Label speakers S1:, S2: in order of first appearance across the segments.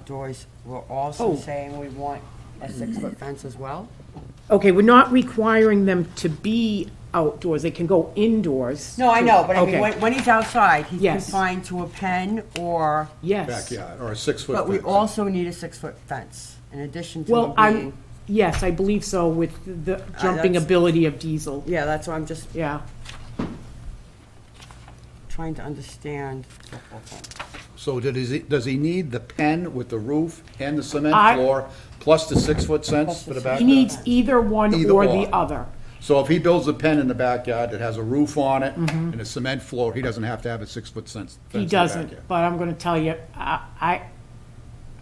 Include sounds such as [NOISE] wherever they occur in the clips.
S1: outdoors, we're also
S2: Oh.
S1: saying we want a six-foot fence as well?
S2: Okay, we're not requiring them to be outdoors, they can go indoors.
S1: No, I know, but I mean,
S2: Okay.
S1: when, when he's outside, he's
S2: Yes.
S1: confined to a pen or,
S2: Yes.
S3: backyard, or a six-foot
S1: but
S3: fence.
S1: we also need a six-foot fence in addition to
S2: Well,
S1: him
S2: I,
S1: being.
S2: yes, I believe so with the jumping
S1: Ah, that's-
S2: ability of Diesel,
S1: Yeah, that's why I'm just
S2: yeah.
S1: trying to understand the whole thing.
S3: So did he, does he need the pen with the roof and the cement
S2: I-
S3: floor, plus the six-foot fence for the
S2: He
S3: backyard?
S2: needs either one
S3: Uh, Either
S2: or the
S3: or.
S2: other.
S3: So if he builds a pen in the backyard that has a roof on it and a cement floor, he doesn't have to have a six-foot fence. fence
S2: Mm-hmm.
S3: in
S2: He
S3: the backyard.
S2: doesn't, but I'm gonna tell you, I, I,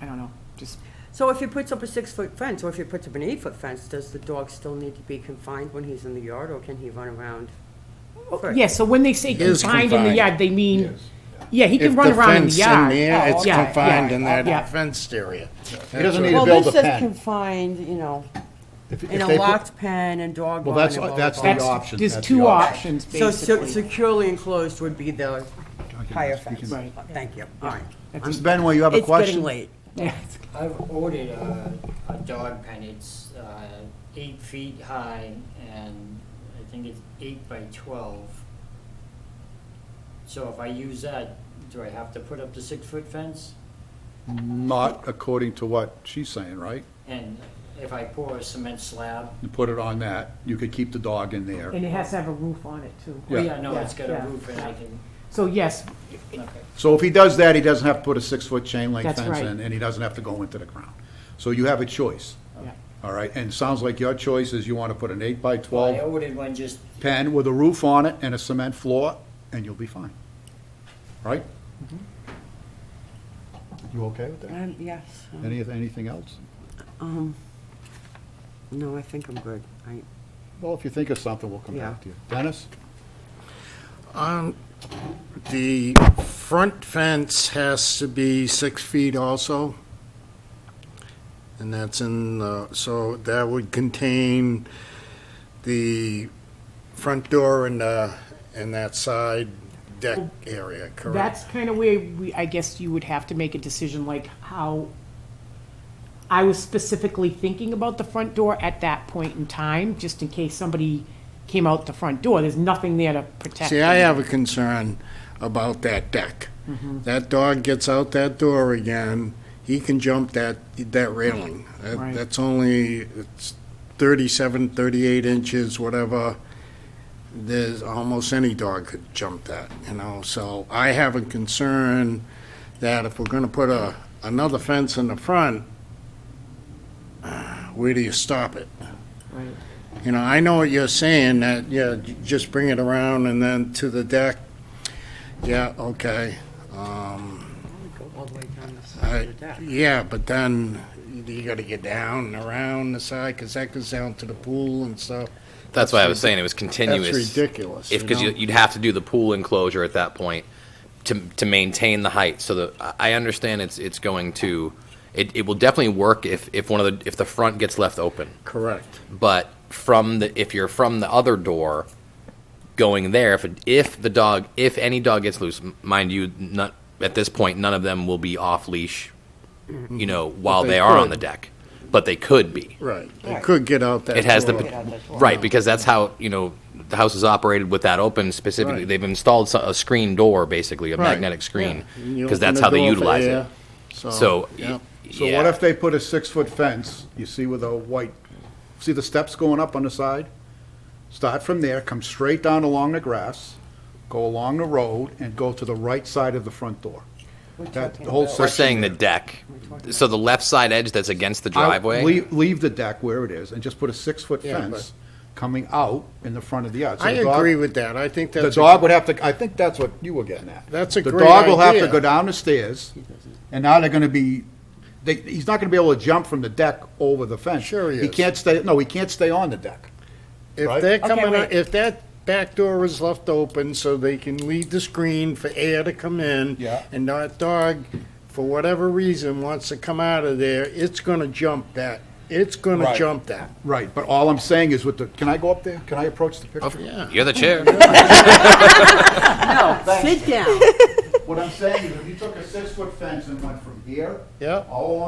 S2: I don't know, just,
S1: So if he puts up a six-foot fence, or if he puts up an eight-foot fence, does the dog still need to be confined when he's in the yard, or can he run around? free?
S2: yeah, so when they say
S4: Is
S2: confined in the
S4: confined,
S2: yard, they mean,
S3: yes,
S2: yeah, he can run around in the yard.
S4: If the fence in there,
S1: Oh,
S4: it's
S1: yeah,
S4: confined
S1: yeah,
S4: in
S2: yeah.
S4: that fenced area.
S3: He doesn't need to
S1: Well,
S3: build
S1: this
S3: a
S1: says
S3: pen.
S1: confined, you know,
S3: If- if
S1: in a
S3: they put-
S1: locked pen and dog
S3: Well,
S1: barn
S3: that's-
S1: and blah,
S3: that's
S1: blah,
S3: the
S1: blah.
S2: That's-
S3: option,
S2: There's
S3: that's
S2: two
S3: the option.
S2: options,
S1: So se-
S2: basically.
S1: securely enclosed would be the higher fence.
S2: Right.
S1: Thank you, all right.
S3: Mr. Benway, you have a
S1: It's getting
S3: question?
S1: late.
S2: Yeah, [LAUGHS] it's-
S5: I've ordered a, a dog pen, it's, uh, eight feet high and I think it's eight by twelve. So if I use that, do I have to put up the six foot fence?
S3: Not according to what she's saying, right?
S5: And if I pour a cement slab?
S3: You put it on that, you could keep the dog in there.
S2: And it has to have a roof on it too.
S5: Oh,
S3: Yeah.
S5: yeah, no, it's got
S2: Yeah.
S5: a roof and I can,
S2: So yes,
S5: okay.
S3: So if he does that, he doesn't have to put a six-foot chain link
S2: That's
S3: fence
S2: right.
S3: in, and he doesn't have to go into the ground. So you have a choice,
S2: yeah.
S3: all right? And it sounds like your choice is you want to put an eight by
S5: I
S3: twelve
S5: ordered one just,
S3: pen with a roof on it and a cement floor, and you'll be fine, right? You okay with that?
S1: Um, Yes, um,
S3: Any, anything else?
S1: no, I think I'm good. I,
S3: Well, if you think of something, we'll come
S1: Yeah.
S3: back to you. Dennis?
S4: Um, The front fence has to be six feet also. And that's in, the- so that would contain the front door and, uh, and that side deck area, correct?
S2: That's kind of where we, I guess you would have to make a decision like how, I was specifically thinking about the front door at that point in time, just in case somebody came out the front door. There's nothing there to protect.
S4: See, I
S2: them. Mm-hmm.
S4: have a concern about that deck. That dog gets out that door again, he can jump that, that railing. That-
S2: Right.
S4: That's only, it's 37, 38 inches, whatever. There's, almost any dog could jump that, you know? So I have a concern that if we're gonna put a, another fence in the front, uh, where do you stop it?
S2: Right.
S4: You know, I know what you're saying, that, yeah, j- just bring it around and then to the deck. Yeah, okay. Um,
S1: go all the way down the side
S4: I,
S1: of the deck.
S4: yeah, but then you gotta get down and around the side, cause that goes down to the pool and stuff.
S6: That's why I was saying it was
S4: That's
S6: continuous.
S4: ridiculous,
S6: If,
S4: you
S6: because
S4: know?
S6: you'd have to do the pool enclosure at that point to, to maintain the height, so that, I I understand it's, it's going to, it, it will definitely work if, if one of the, if the front gets left open.
S4: Correct.
S6: But from the, if you're from the other door going there, if, it- if the dog, if any dog gets loose, m- mind you, not, at this point, none of them will be off leash, you know, while
S4: they
S6: they are on
S4: could.
S6: the deck, but they could be.
S4: Right,
S1: Right.
S4: it could get out that
S6: It has the,
S4: door.
S6: right, because that's how, you know, the house is operated with that open specifically.
S4: Right.
S6: They've installed so- a screen door, basically, a
S4: Right,
S6: magnetic screen,
S4: yeah. And you
S6: because
S4: open
S6: that's
S4: the
S6: how they
S4: door for
S6: utilize it.
S4: air,
S6: So,
S4: yeah.
S3: So what if they put a six-foot fence, you see with a white, see the steps going up on the side? Start from there, come straight down along the grass, go along the road, and go to the right side of the front door. That whole
S6: We're
S3: section
S6: saying the
S3: there.
S6: deck, so the left side edge that's against the
S3: Out-
S6: driveway?
S3: Leave, leave the deck where it is, and just put a six-foot
S4: Yeah, but-
S3: fence coming out in the front of the yard. So
S4: I
S3: the dog-
S4: agree with that, I think
S3: The
S4: that's. a-
S3: dog would have to, I think that's what you were getting at.
S4: That's a
S3: The
S4: great
S3: dog will have to
S4: idea.
S3: go down the stairs, and now they're gonna be, they, he's not gonna be able to jump from the deck over the fence.
S4: Sure he
S3: He
S4: is.
S3: can't stay, no, he can't stay on the deck. Right?
S4: If they're
S1: Okay,
S4: coming,
S1: wait.
S4: out- if that back door is left open so they can leave the screen for air to come in.
S3: Yeah.
S4: And that dog, for whatever reason, wants to come out of there, it's gonna jump that, it's gonna
S3: Right.
S4: jump that.
S3: Right, but all I'm saying is with the, can I go up there? Can I approach the picture?
S4: Yeah.
S6: You're the chair.
S1: No, sit down.
S3: What I'm saying is if you took a six-foot fence and went from here.
S4: Yeah.
S3: All along